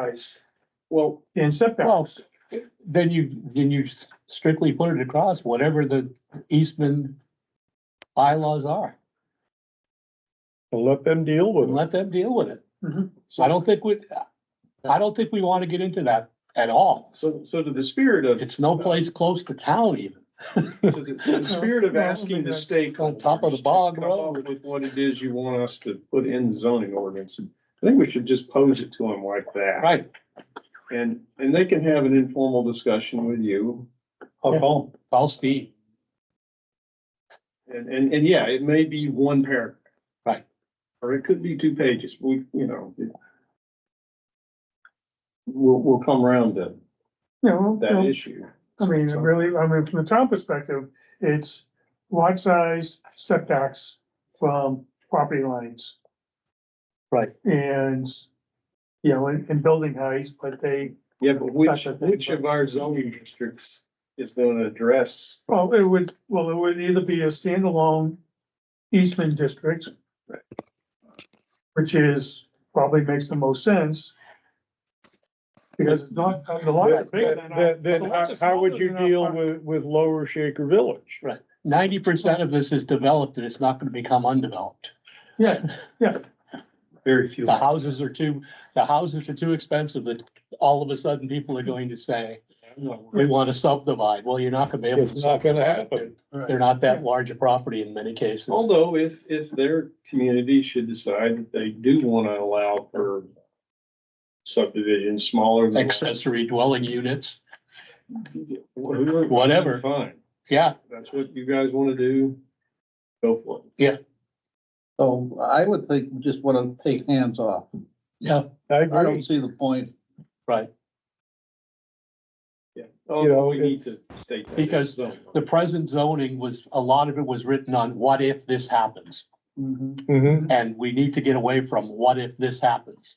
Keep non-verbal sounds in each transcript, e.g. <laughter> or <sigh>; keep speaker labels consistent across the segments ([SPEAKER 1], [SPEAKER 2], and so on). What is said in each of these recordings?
[SPEAKER 1] guys
[SPEAKER 2] Well,
[SPEAKER 1] in
[SPEAKER 2] well,
[SPEAKER 1] setbacks.
[SPEAKER 2] then you, then you strictly put it across whatever the Eastman bylaws are
[SPEAKER 3] and let them deal
[SPEAKER 2] and
[SPEAKER 3] with it.
[SPEAKER 2] let them deal with it.
[SPEAKER 1] Mhm.
[SPEAKER 2] So I don't think we, I don't think we want to get into that at all.
[SPEAKER 4] So, so to the spirit of,
[SPEAKER 2] It's no place close to town even.
[SPEAKER 4] to the,
[SPEAKER 2] <laughs>
[SPEAKER 4] to the spirit of
[SPEAKER 1] No, I don't
[SPEAKER 4] asking
[SPEAKER 1] think
[SPEAKER 4] the
[SPEAKER 1] that's-
[SPEAKER 4] stakeholders.
[SPEAKER 2] It's on top of the bog
[SPEAKER 4] to come up
[SPEAKER 2] road.
[SPEAKER 4] With what it is you want us to put in the zoning ordinance. I think we should just pose it to them like that.
[SPEAKER 2] Right.
[SPEAKER 4] And, and they can have an informal discussion with you.
[SPEAKER 2] I'll call, call Steve.
[SPEAKER 4] And, and, and yeah, it may be one paragraph.
[SPEAKER 2] Right.
[SPEAKER 4] Or it could be two pages. We, you know. it- We'll, we'll come around to
[SPEAKER 1] You know, you
[SPEAKER 4] that
[SPEAKER 1] know,
[SPEAKER 4] issue.
[SPEAKER 1] I mean, it really, I mean, from the town perspective, it's lot size setbacks from property lines.
[SPEAKER 2] Right.
[SPEAKER 1] And, you know, and, and building heights, but they,
[SPEAKER 4] Yeah, but which,
[SPEAKER 1] That's a thing,
[SPEAKER 4] which of our zoning districts is gonna address
[SPEAKER 1] well, it would, well, it would either be a standalone Eastman district.
[SPEAKER 4] Right.
[SPEAKER 1] Which is, probably makes the most sense. Because it's not, I mean, the lots are bigger than. our-
[SPEAKER 3] Then, then
[SPEAKER 1] the
[SPEAKER 3] how,
[SPEAKER 1] lots are
[SPEAKER 3] how would
[SPEAKER 1] smaller
[SPEAKER 3] you
[SPEAKER 1] than our
[SPEAKER 3] deal
[SPEAKER 1] property.
[SPEAKER 3] with, with Lower Shaker Village?
[SPEAKER 2] Ninety percent of this is developed and it's not going to become undeveloped.
[SPEAKER 1] Yeah,
[SPEAKER 5] Very few.
[SPEAKER 2] The houses are too, the houses are too expensive that all of a sudden people are going to say, we want to subdivide. Well, you're not going to be able to.
[SPEAKER 3] It's not gonna
[SPEAKER 2] subdivide.
[SPEAKER 3] happen.
[SPEAKER 2] They're not that large a property in many cases.
[SPEAKER 4] Although if, if their community should decide that they do want to allow for subdivisions smaller than.
[SPEAKER 2] Accessory dwelling units,
[SPEAKER 4] Whatever.
[SPEAKER 2] Whatever.
[SPEAKER 4] Fine,
[SPEAKER 2] yeah,
[SPEAKER 4] that's what you guys want to do, go for it.
[SPEAKER 6] So I would think, we just wanna take hands off.
[SPEAKER 2] yeah,
[SPEAKER 3] I
[SPEAKER 6] I don't
[SPEAKER 3] agree.
[SPEAKER 6] see the point.
[SPEAKER 2] right.
[SPEAKER 4] Yeah. Oh,
[SPEAKER 3] You know,
[SPEAKER 4] we need to
[SPEAKER 3] it's-
[SPEAKER 4] state that.
[SPEAKER 2] Because The present zoning was, a lot of it was written on what if this happens?
[SPEAKER 1] Mm-hmm.
[SPEAKER 3] Mhm.
[SPEAKER 2] And we need to get away from what if this happens?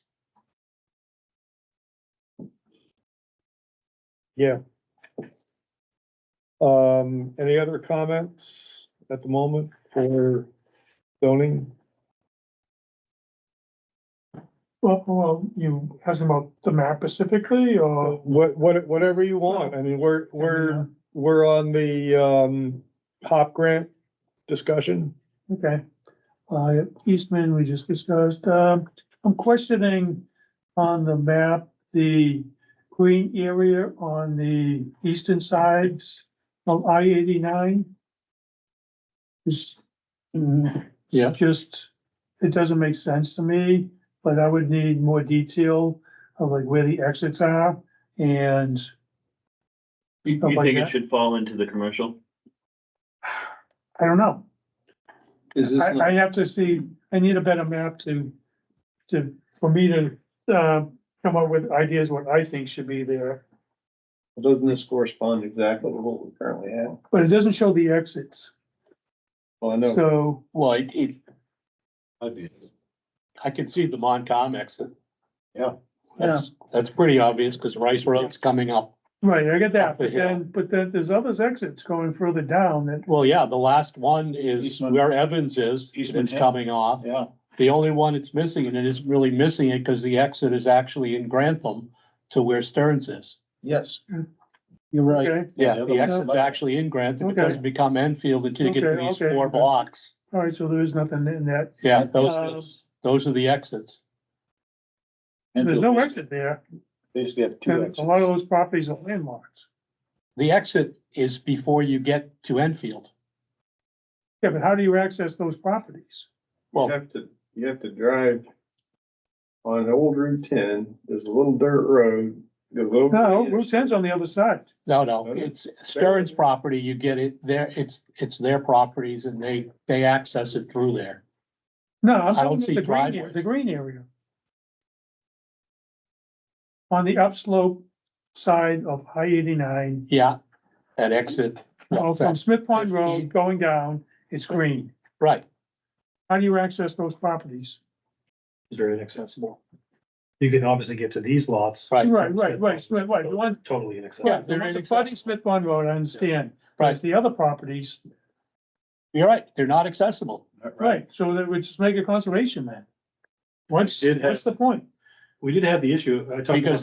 [SPEAKER 3] Um, any other comments at the moment for zoning?
[SPEAKER 1] Well, well, you asking about the map specifically or?
[SPEAKER 3] Uh, What, what, whatever you want. I mean, we're, we're, we're on the, um, HOP grant discussion.
[SPEAKER 1] Okay. Uh, Eastman, we just discussed, um, I'm questioning on the map, the green area on the eastern sides of I eighty-nine. Is mm,
[SPEAKER 2] Yeah.
[SPEAKER 1] just, it doesn't make sense to me, but I would need more detail of like where the exits are and
[SPEAKER 5] You
[SPEAKER 1] Stuff
[SPEAKER 5] you
[SPEAKER 1] like
[SPEAKER 5] think
[SPEAKER 1] that.
[SPEAKER 5] it should fall into the commercial?
[SPEAKER 1] I don't know.
[SPEAKER 4] Is this,
[SPEAKER 1] I, I have to see, I need a better map to, to, for me to, uh, come up with ideas what I think should be there.
[SPEAKER 4] doesn't this correspond exactly with what we currently have?
[SPEAKER 1] But it doesn't show the exits,
[SPEAKER 4] Well, I know,
[SPEAKER 1] so,
[SPEAKER 2] Well, it, it. I can see the Moncom exit.
[SPEAKER 4] Yeah.
[SPEAKER 2] That's, that's pretty obvious because Rice Road's coming up.
[SPEAKER 1] right, I get that,
[SPEAKER 2] Up the
[SPEAKER 1] but
[SPEAKER 2] hill.
[SPEAKER 1] then, but then there's others exits going further down that,
[SPEAKER 2] Well, yeah, the last one is
[SPEAKER 6] Eastman.
[SPEAKER 2] where Evans is,
[SPEAKER 6] Eastman
[SPEAKER 2] it's
[SPEAKER 6] Hill.
[SPEAKER 2] coming off.
[SPEAKER 6] Yeah.
[SPEAKER 2] The only one it's missing, and it isn't really missing it because the exit is actually in Grantham to where Stearns is.
[SPEAKER 6] Yes. You're right.
[SPEAKER 1] okay,
[SPEAKER 2] Yeah, the
[SPEAKER 6] Yeah.
[SPEAKER 2] exit's actually in Grantham. It
[SPEAKER 1] Okay.
[SPEAKER 2] doesn't become Enfield until you get to
[SPEAKER 1] Okay,
[SPEAKER 2] these
[SPEAKER 1] okay.
[SPEAKER 2] four blocks.
[SPEAKER 1] all right, so there is nothing in that.
[SPEAKER 2] Yeah,
[SPEAKER 1] Um,
[SPEAKER 2] those, those are the exits.
[SPEAKER 1] There's no exit there,
[SPEAKER 6] Basically have
[SPEAKER 1] and a lot of those properties are landlocked.
[SPEAKER 2] The exit is before you get to Enfield.
[SPEAKER 1] Yeah, but how do you access those properties?
[SPEAKER 4] you
[SPEAKER 2] Well,
[SPEAKER 4] have to, you have to drive on old Route ten, there's a little dirt road, goes over.
[SPEAKER 1] No,
[SPEAKER 4] the
[SPEAKER 1] Route ten's on the other side,
[SPEAKER 2] No, no,
[SPEAKER 4] Okay.
[SPEAKER 2] it's Stern's property, you get it there, it's, it's their properties and they, they access it through there.
[SPEAKER 1] no, I'm
[SPEAKER 2] I don't
[SPEAKER 1] talking about
[SPEAKER 2] see
[SPEAKER 1] the green, area-
[SPEAKER 2] driveways.
[SPEAKER 1] the green area. On the upslope side of I eighty-nine,
[SPEAKER 2] Yeah, that exit.
[SPEAKER 1] Well, from Smith Pond
[SPEAKER 2] Fifteen.
[SPEAKER 1] Road going down, it's green.
[SPEAKER 2] Right,
[SPEAKER 1] How do you access those properties?
[SPEAKER 5] It's very inaccessible. You can obviously get to these lots.
[SPEAKER 2] right,
[SPEAKER 1] Right, right, right, right, right. The one,
[SPEAKER 5] Totally
[SPEAKER 1] yeah,
[SPEAKER 5] inaccessible.
[SPEAKER 1] the
[SPEAKER 2] they're
[SPEAKER 1] ones
[SPEAKER 2] inaccessible.
[SPEAKER 1] abutting Smith Pond Road, I understand. But it's
[SPEAKER 2] right.
[SPEAKER 1] the other properties,
[SPEAKER 2] You're right, they're not accessible.
[SPEAKER 1] right, so that would just make a conservation then. What's,
[SPEAKER 5] did have-
[SPEAKER 1] what's the point?
[SPEAKER 7] we did have the issue, I talked about.
[SPEAKER 5] Because